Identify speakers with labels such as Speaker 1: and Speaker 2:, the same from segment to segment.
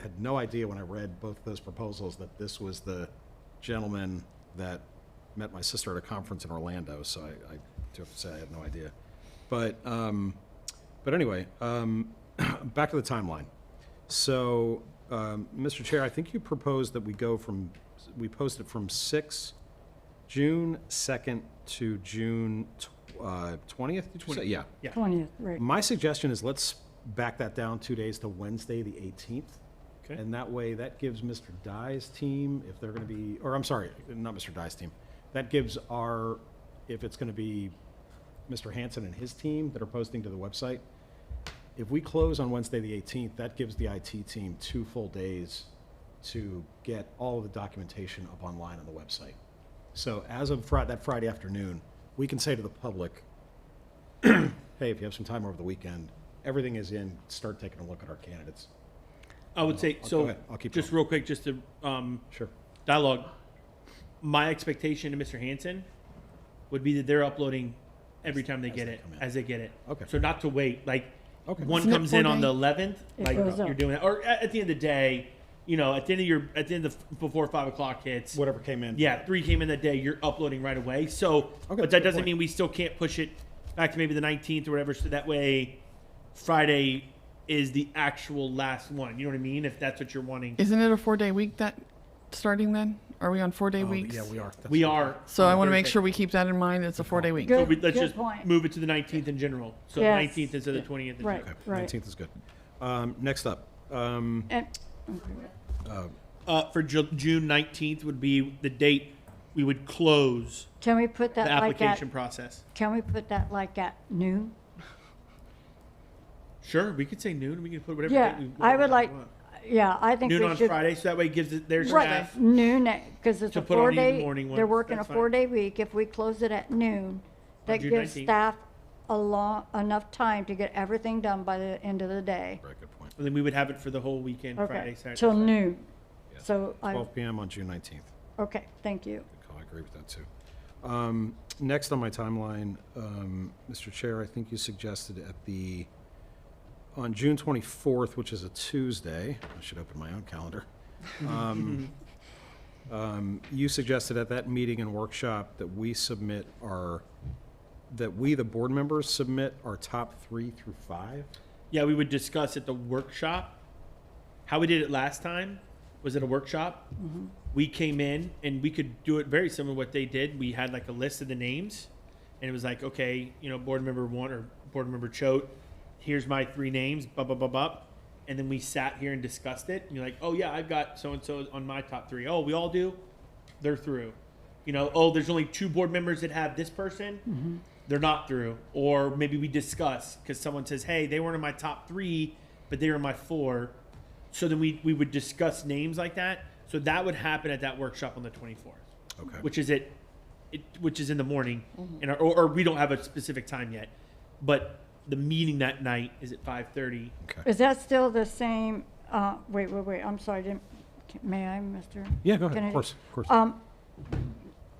Speaker 1: had no idea when I read both those proposals that this was the gentleman that met my sister at a conference in Orlando, so I, I do have to say I had no idea. But, um, but anyway, um, back to the timeline. So, um, Mr. Chair, I think you proposed that we go from, we post it from six, June second to June uh, twentieth, did you say? Yeah.
Speaker 2: Yeah.
Speaker 3: 20th, right.
Speaker 2: Mm.
Speaker 1: My suggestion is let's back that down two days to Wednesday, the 18th.
Speaker 2: Okay.
Speaker 1: And that way, that gives Mr. Dye's team, if they're going to be, or I'm sorry, not Mr. Dye's team. That gives our, if it's going to be Mr. Hanson and his team that are posting to the website. If we close on Wednesday, the 18th, that gives the IT team two full days to get all of the documentation up online on the website. So as of Friday, that Friday afternoon, we can say to the public, hey, if you have some time over the weekend, everything is in, start taking a look at our candidates.
Speaker 2: I would say,
Speaker 1: I'll- go
Speaker 2: so,
Speaker 1: ahead. I'll keep
Speaker 2: just
Speaker 1: going.
Speaker 2: real quick, just to, um,
Speaker 1: Sure.
Speaker 2: dialogue. My expectation to Mr. Hanson would be that they're uploading every time they
Speaker 1: As
Speaker 2: get
Speaker 1: they
Speaker 2: it,
Speaker 1: come in.
Speaker 2: as they get it.
Speaker 1: Okay.
Speaker 2: So not to wait, like,
Speaker 1: Okay.
Speaker 2: one
Speaker 3: Isn't it
Speaker 2: comes in
Speaker 3: four
Speaker 2: on the eleventh,
Speaker 3: It
Speaker 2: like,
Speaker 3: goes
Speaker 2: you're
Speaker 3: up.
Speaker 2: doing, it, or at, at the end of the day, you know, at the end of your, at the end of, before five o'clock hits.
Speaker 1: Whatever came in.
Speaker 2: Yeah, three came in that day, you're uploading right away, so, but
Speaker 1: good
Speaker 2: that doesn't
Speaker 1: point.
Speaker 2: mean we still can't push it back to maybe the nineteenth or whatever, so that way Friday is the actual last one, you know what I mean, if that's what you're wanting.
Speaker 4: Isn't it a four day week that starting then? Are we on four day
Speaker 1: Oh,
Speaker 4: weeks?
Speaker 1: Yeah, we are. That's
Speaker 2: We
Speaker 1: right.
Speaker 2: are.
Speaker 4: So I want to make
Speaker 2: Thursday.
Speaker 4: sure we keep that in mind. It's a four day week.
Speaker 3: Good.
Speaker 2: So we, let's
Speaker 3: good
Speaker 2: just
Speaker 3: point.
Speaker 2: move it to the 19th in general. So
Speaker 3: Yes.
Speaker 2: 19th instead of the 20th. in
Speaker 3: Right.
Speaker 2: general.
Speaker 1: Okay, 19th is good. Um, next up, um,
Speaker 3: And,
Speaker 2: Uh, for Ju- June 19th would be the date we would close
Speaker 3: can we put
Speaker 2: the
Speaker 3: that like at,
Speaker 2: application process.
Speaker 3: can we put that like at noon?
Speaker 2: Sure, we could say noon. We could put whatever.
Speaker 3: Yeah,
Speaker 2: date we,
Speaker 3: I
Speaker 2: whatever
Speaker 3: would like,
Speaker 2: we want.
Speaker 3: yeah, I think
Speaker 2: noon on
Speaker 3: we should.
Speaker 2: Friday, so that way it gives it their
Speaker 3: Right,
Speaker 2: staff.
Speaker 3: noon, because it's
Speaker 2: To
Speaker 3: a
Speaker 2: put on in the
Speaker 3: four-day,
Speaker 2: morning
Speaker 3: they're
Speaker 2: ones,
Speaker 3: working a
Speaker 2: that's fine.
Speaker 3: four-day week. If we close it at noon, that
Speaker 2: June
Speaker 3: gives
Speaker 2: 19th.
Speaker 3: staff a long, enough time to get everything done by the end of the day.
Speaker 1: very good point.
Speaker 2: And then we would have it for the whole weekend, Friday,
Speaker 3: Okay,
Speaker 2: Saturday.
Speaker 3: till
Speaker 2: Sunday.
Speaker 3: noon. So I,
Speaker 1: 12 PM on June 19th.
Speaker 3: okay, thank you.
Speaker 1: Good call, I agree with that, too. Um, next on my timeline, um, Mr. Chair, I think you suggested at the, on June 24th, which is a Tuesday, I should open my own calendar. um, um, You suggested at that meeting and workshop that we submit our, that we, the board members, submit our top three through five?
Speaker 2: Yeah, we would discuss at the workshop. How we did it last time was at a workshop.
Speaker 3: Mm-hmm.
Speaker 2: We came in and we could do it very similar to what they did. We had like a list of the names and it was like, okay, you know, board member one or board member Choate, here's my three names, blah, blah, blah, blah. And then we sat here and discussed it. And you're like, oh yeah, I've got so-and-so on my top three. Oh, we all do? They're through. You know, oh, there's only two board members that have this person
Speaker 3: Mm-hmm.
Speaker 2: they're not through or maybe we discuss because someone says hey they weren't in my top three but they were in my four so then we, we would discuss names like that so that would happen at that workshop on the 24th
Speaker 1: Okay.
Speaker 2: which is at it, which is in the morning and our, or, or we don't have a specific time yet but the meeting that night is at 5.30
Speaker 1: Okay.
Speaker 3: Is that still the same, uh, wait, wait, wait, I'm sorry, didn't, may I, Mr.?
Speaker 1: Yeah, go ahead,
Speaker 3: Kennedy?
Speaker 1: of course, of course.
Speaker 3: Um,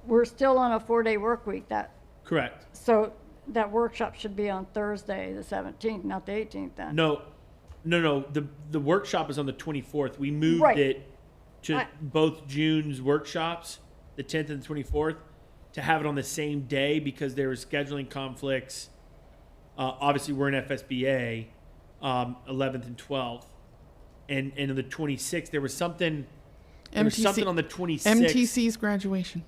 Speaker 3: we're still on a four-day work week, that,
Speaker 2: correct
Speaker 3: so that workshop should be on Thursday, the seventeenth, not the eighteenth then?
Speaker 2: no no no the the workshop is on the 24th we moved
Speaker 3: Right.
Speaker 2: it to
Speaker 3: I-
Speaker 2: both june's workshops the 10th and 24th to have it on the same day because there were scheduling conflicts uh, obviously we're in fsba um, 11th and 12th and and on the 26th there was something there was something on the 26th
Speaker 4: MTC's graduation.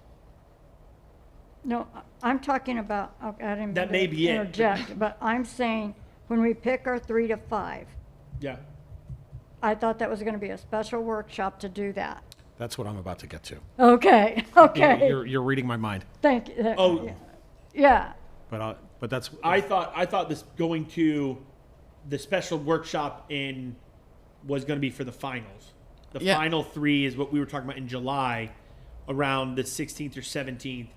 Speaker 3: No, I- I'm talking about, okay, I didn't.
Speaker 2: That
Speaker 3: mean
Speaker 2: may
Speaker 3: to
Speaker 2: be it.
Speaker 3: Interject, but I'm saying, when we pick our three to five,
Speaker 2: yeah
Speaker 3: I thought that was gonna be a special workshop to do that.
Speaker 1: That's what I'm about to get to.
Speaker 3: Okay, okay,
Speaker 1: You're, you're reading my mind,
Speaker 3: thank you.
Speaker 2: oh
Speaker 3: Yeah,
Speaker 1: but, I- but that's,
Speaker 2: I thought I thought this going to the special workshop in was going to be for the finals. The
Speaker 4: Yeah.
Speaker 2: final three is what we were talking about in July, around the 16th or 17th,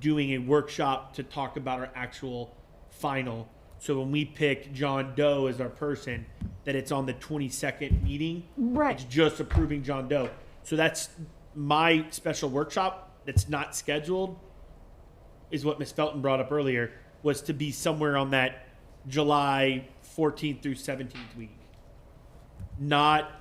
Speaker 2: doing a workshop to talk about our actual final. So when we picked John Doe as our person, that it's on the 22nd meeting.
Speaker 3: Right.
Speaker 2: It's just approving John Doe. So that's my special workshop that's not scheduled is what Miss Felton brought up earlier, was to be somewhere on that July 14th through 17th week. Not